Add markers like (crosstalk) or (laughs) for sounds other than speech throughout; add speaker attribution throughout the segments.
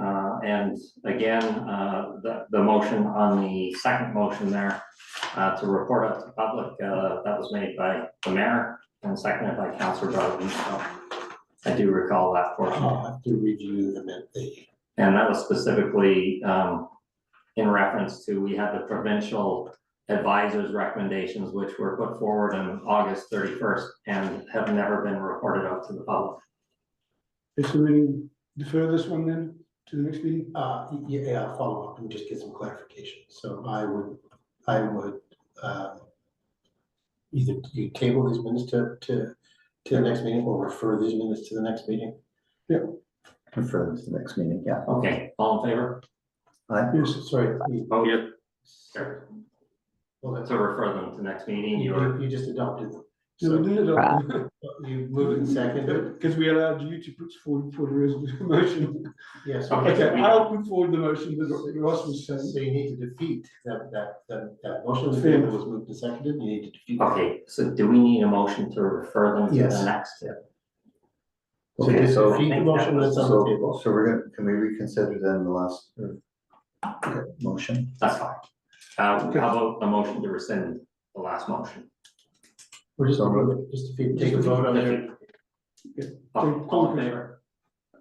Speaker 1: Uh, and again, uh, the, the motion on the second motion there, uh, to report out to the public, uh, that was made by the mayor and seconded by Councilor Bowden, so I do recall that portion.
Speaker 2: I'll have to review them at the,
Speaker 1: And that was specifically, um, in reference to, we had the provincial advisors' recommendations, which were put forward on August thirty-first and have never been reported out to the public.
Speaker 3: Is there any, defer this one then to the next meeting?
Speaker 2: uh, yeah, yeah, I'll follow up and just get some clarification. So I would, I would, um, either you table these minutes to, to, to the next meeting or refer these minutes to the next meeting.
Speaker 4: Refer this to the next meeting, yeah.
Speaker 1: Okay, all in favor?
Speaker 4: Aye.
Speaker 3: Yes,
Speaker 2: Sorry. you-
Speaker 1: Oh, yeah. Sure.
Speaker 2: well, that's-
Speaker 1: To refer them to next meeting, you
Speaker 2: You,
Speaker 1: were,
Speaker 2: you just adopted them.
Speaker 3: yeah, we
Speaker 2: So
Speaker 3: did it.
Speaker 2: you moved and seconded,
Speaker 3: Because we allowed you to put forward for the resolution (laughs) motion.
Speaker 2: yes.
Speaker 1: Okay.
Speaker 3: Okay, I'll put forward the motion that Ross was
Speaker 2: So
Speaker 3: saying.
Speaker 2: you need to defeat that, that, that, that motion was made, it was moved and seconded, you need to defeat. that.
Speaker 1: okay, so do we need a motion to refer them to the
Speaker 2: Yes.
Speaker 1: next?
Speaker 2: So
Speaker 4: Okay,
Speaker 2: just
Speaker 4: so-
Speaker 2: defeat the motion that's on the table.
Speaker 4: So, so we're gonna, can we reconsider then the last uh, motion?
Speaker 1: That's fine. Uh, how
Speaker 3: Okay.
Speaker 1: about a motion to rescind the last motion?
Speaker 2: We're just,
Speaker 4: So moved.
Speaker 2: just if you take a vote on it,
Speaker 1: All Oh, all in favor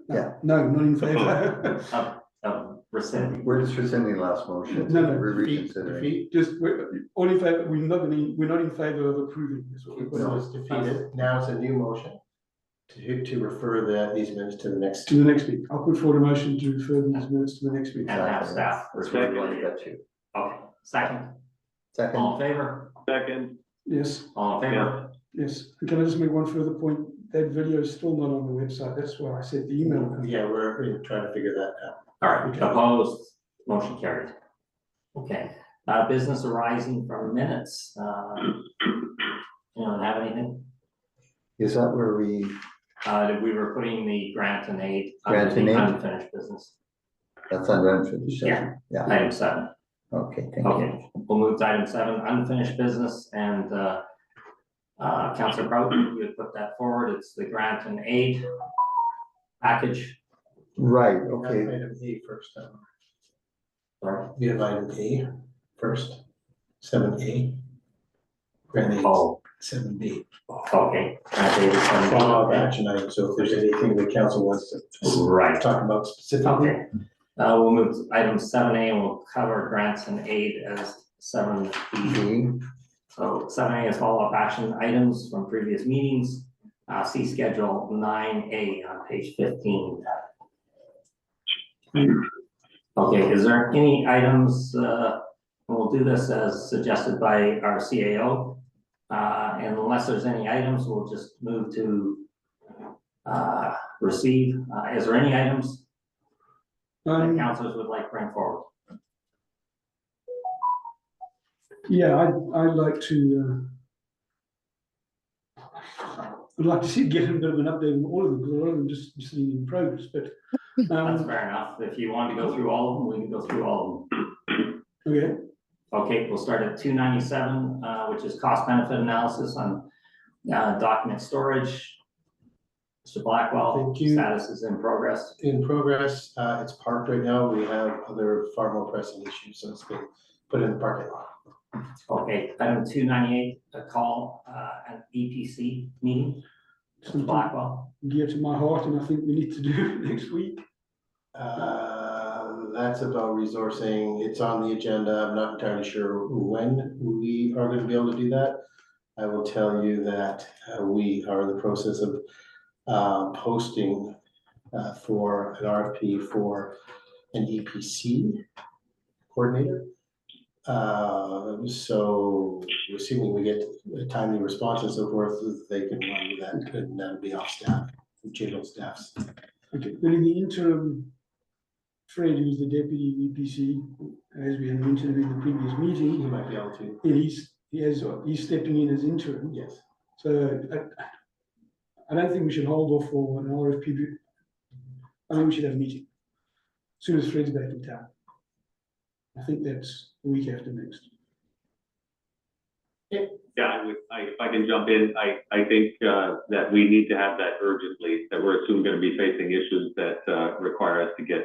Speaker 4: Yeah.
Speaker 3: uh, No, not in favor.
Speaker 1: of rescinding?
Speaker 4: We're just rescinding last motion.
Speaker 3: (laughs) No, no,
Speaker 4: We're
Speaker 2: defeat,
Speaker 4: reconsidering.
Speaker 2: defeat,
Speaker 3: Just, we're, all in favor, we're not gonna, we're not in favor of approving this.
Speaker 2: so it's defeated, now it's a new motion. To, to refer the, these minutes to the next,
Speaker 3: To the next meeting. I'll put forward a motion to refer these minutes to the next meeting.
Speaker 1: And have staff refer
Speaker 4: Exactly,
Speaker 1: them.
Speaker 4: got you.
Speaker 1: Okay, second,
Speaker 4: Second,
Speaker 1: all in favor?
Speaker 5: Second,
Speaker 3: Yes,
Speaker 1: All in favor?
Speaker 3: yes. And Can I just make one further point? That video is still not on the website. That's why I said the email.
Speaker 2: yeah, we're we're trying to figure that out.
Speaker 1: All right, opposed, motion carried. Okay, uh, business arising from minutes, uh, you don't have anything?
Speaker 4: is that where we,
Speaker 1: Uh, that we were putting the grant and aid. under
Speaker 4: Grant and
Speaker 1: the
Speaker 4: aid.
Speaker 1: Unfinished business,
Speaker 4: that's under unfinished
Speaker 1: Yeah.
Speaker 4: session? Yeah,
Speaker 1: item seven,
Speaker 4: okay, thank you.
Speaker 1: okay, we'll move to item seven, unfinished business, and, uh, uh, Counselor Broughton, you had put that forward, it's the grant and aid package,
Speaker 4: Right,
Speaker 2: That's
Speaker 4: okay,
Speaker 2: Item A first, um,
Speaker 1: or,
Speaker 2: we have item A first, seven A. Grant A,
Speaker 1: oh,
Speaker 2: seven B.
Speaker 1: okay. grant aid is under-
Speaker 2: Follow up action item, so if there's anything the council wants to
Speaker 1: Right,
Speaker 2: talk about specifically.
Speaker 1: okay, uh, we'll move to item seven A, and we'll cover grants and aid as seven B.
Speaker 4: B,
Speaker 1: So seven A is follow-up action items from previous meetings. Uh, see schedule nine A on page fifteen. Okay, is there any items, uh, and we'll do this as suggested by our CAO. Uh, and unless there's any items, we'll just move to uh, receive. Uh, is there any items that
Speaker 3: Um,
Speaker 1: councilors would like to bring forward?
Speaker 3: Yeah, I, I'd like to, uh, I'd like to see, get a bit of an update on all of them, because a lot of them just, just sitting in progress, but,
Speaker 1: That's
Speaker 3: um,
Speaker 1: fair enough. If you want to go through all of them, we can go through all of them.
Speaker 3: okay,
Speaker 1: Okay, we'll start at two ninety-seven, uh, which is cost benefit analysis on, uh, document storage. Mr. Blackwell,
Speaker 2: Thank you.
Speaker 1: status is in progress.
Speaker 2: in progress. Uh, it's parked right now. We have other far more pressing issues, so it's been put in the parking lot.
Speaker 1: Okay, item two ninety-eight, a call, uh, an EPC meeting, Mr.
Speaker 3: something
Speaker 1: Blackwell.
Speaker 3: dear to my heart, and I think we need to do it (laughs) next week.
Speaker 2: Uh, that's about resourcing. It's on the agenda. I'm not entirely sure when we are gonna be able to do that. I will tell you that uh, we are in the process of uh, posting uh, for an RFP for an EPC coordinator. Uh, so assuming we get timely responses of where they can run with that, and that'll be off staff, general staffs.
Speaker 3: Okay, then in the interim, Fred, who's the deputy EPC, as we had mentioned in the previous
Speaker 2: You
Speaker 3: meeting,
Speaker 2: might be able to,
Speaker 3: he's, he has, he's stepping in as interim.
Speaker 2: yes.
Speaker 3: So I, I don't think we should hold off for an RFP. be- I think we should have a meeting. Soon as Fred's back in town. I think that's the week after next.
Speaker 5: yeah, I would, I, if I can jump in, I, I think, uh, that we need to have that urgently, that we're soon gonna be facing issues that, uh, require us to get